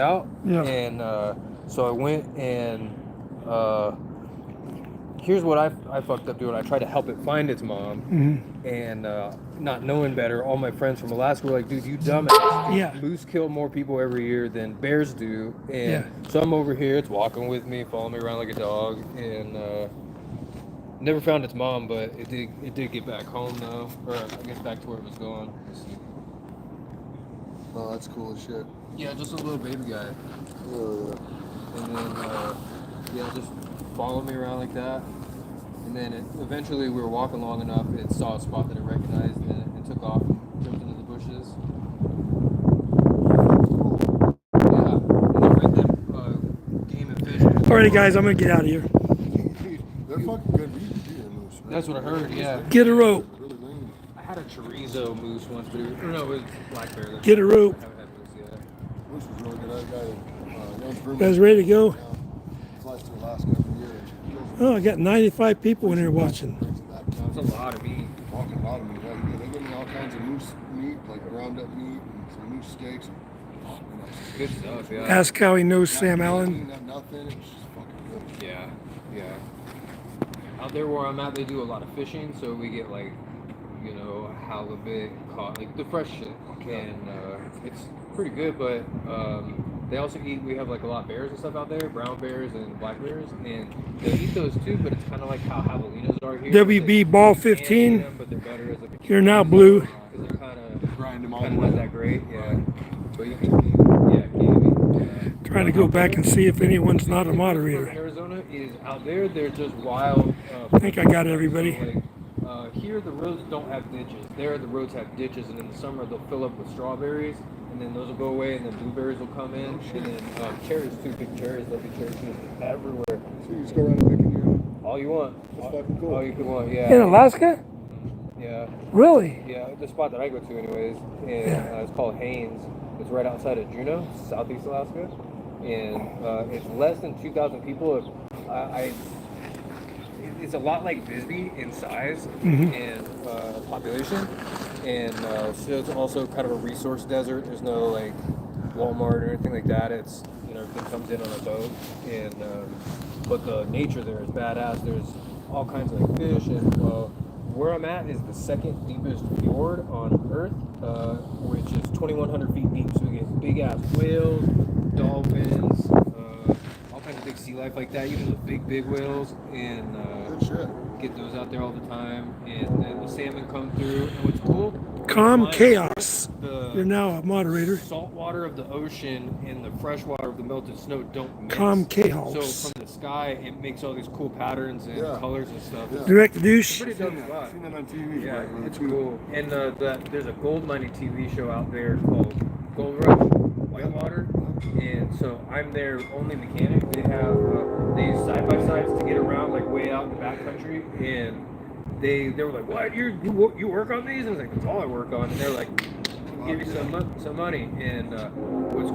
out. Yeah. And uh, so I went and uh, here's what I, I fucked up doing. I tried to help it find its mom, Mm-hmm. and uh, not knowing better, all my friends from Alaska were like, "Dude, you dumbass! Yeah. Moose kill more people every year than bears do." And Yeah. so I'm over here. It's walking with me, following me around like a dog, and. Uh, Never found its mom, but it did. It did get back home though, or I guess back to where it was going. Let's see. Oh, that's cool as shit. Yeah, just a little baby guy. Uh, and then uh, yeah, it just followed me around like that. And then it, eventually, we were walking long enough, it saw a spot that it recognized and it, it took off and jumped into the bushes. Yeah, and then right then, uh, game and fish. Alrighty, guys, I'm gonna get out of here. dude, they're fucking good. We used to do that moose, right? That's what I heard, yeah. Get a rope. Really lean. I had a chorizo moose once, but it was, no, it was black bear. that's- Get a rope. I haven't had moose yet. Moose was really good. That guy, uh, Young's Brewman, Guys, ready to go? now flies to Alaska every year. and kills them. Oh, I got 95 people in here watching. Brings them back. That's a lot of meat. Walking a lot of meat. Like, they give me all kinds of moose meat, like ground up meat and some moose steaks. And, oh, man, that's Good stuff, yeah. Ask how he knows not Sam guaranteed, Allen. Not nothing. It's just fucking good. Yeah, yeah. Out there where I'm at, they do a lot of fishing, so we get like, you know, halibut, caught, like the fresh shit, and uh, it's pretty good. But um, they also eat. We have like a lot of bears and stuff out there, brown bears and black bears, and they eat those too. But it's kind of like how javelinas are here. WB They Ball can't eat 15. them, but they're better as a- You're now blue. 'cause they're kind of Grind them all kind the of way. not that great. Yeah, but you can, yeah, gamey, yeah. Trying to go back and see if anyone's not a From moderator. Arizona is out there. They're just wild. Uh, I think I got everybody. like, uh, here the roads don't have ditches. There the roads have ditches, and in the summer they'll fill up with strawberries, and then those will go away, and then blueberries will come in, and then uh, cherries too. Big cherries. There'll be cherries everywhere. So you just go around and pick your own. All you want. That's fucking cool. All you can want. In Yeah. Alaska? Yeah. Really? Yeah. The spot that I go to, anyways, and Yeah. uh, it's called Haynes. It's right outside of Juneau, Southeast Alaska, and uh, it's less than 2,000 people. If- I, I it- it's a lot like Bisbee in size and uh, population, and uh, so it's also kind of a resource desert. There's no like Walmart or anything like that. It's you know everything comes in on a boat, and um, but the nature there is badass. There's all kinds of like fish, and uh, where I'm at is the second deepest fjord on Earth, uh, which is 2,100 feet deep. So we get big ass whales, dolphins. Uh, all kinds of big sea life like that, even the big, big whales, and uh, Good shit. get those out there all the time. And then the salmon come through. And what's cool? Calm is chaos. You're The now a moderator. salt water of the ocean and the fresh water of the melted snow don't mix. Calm So chaos. from the sky, it makes all these cool patterns and Yeah. colors and stuff. Yeah. Direct douche. Pretty dope spot. Seen that on TV. Yeah, right, man? it's cool. And uh, the, there's a gold mining TV show out there called Gold Rush Whitewater, and so I'm their only mechanic. They have uh, they use side by sides to get around like way out in the backcountry, and they they were like, "What you you wo- you work on these?" And I was like, "That's all I work on." And they're like, "We'll "Give you some mon- some money." And uh, was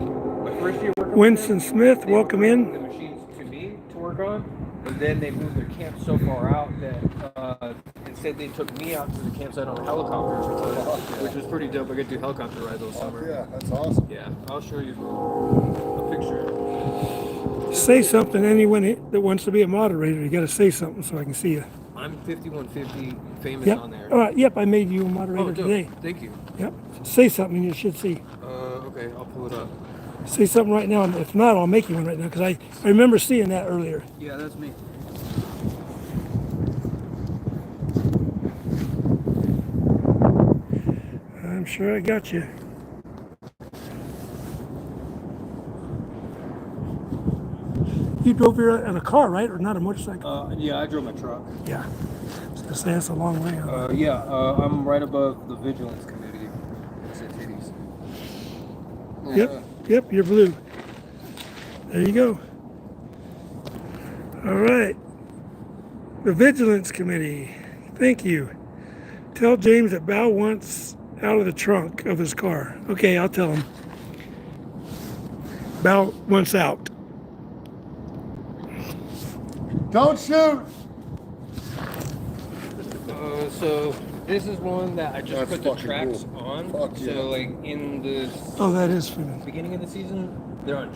my first year working. with Winston them, Smith, they welcome were- in. the machines to me to work on, and then they moved their camp so far out that uh, instead they took me out to the campsite on a helicopter, which was, which was pretty dope. I got to do helicopter rides all summer. Yeah, that's awesome. Yeah, I'll show you a picture. Say something, anyone that wants to be a moderator. You gotta say something so I can see you. I'm 5150 famous Yep. on there. All right, yep, I made you a oh, moderator dope. today. Thank you. Yep. Say something, you should see. Uh, okay, I'll pull it up. Say something right now. and If not, I'll make you one right now because I, I remember seeing that earlier. Yeah, that's me. I'm sure I got you. You drove here in a car, right? Or not a motorcycle? Uh, yeah, I drove my truck. Yeah. I was gonna say that's a long way. huh? Uh, yeah, uh, I'm right above the vigilance committee. It's at titties. Uh, Uh, Yep, yep, you're blue. There you go. All right. The Vigilance Committee, thank you. Tell James that Bow wants out of the trunk of his car. Okay, I'll tell him. Bow wants out. Don't shoot. Uh, so this is one that I just That's put the fucking tracks cool. on. Fuck so yeah. like in the s- Oh, that is for me. beginning of the season, they're on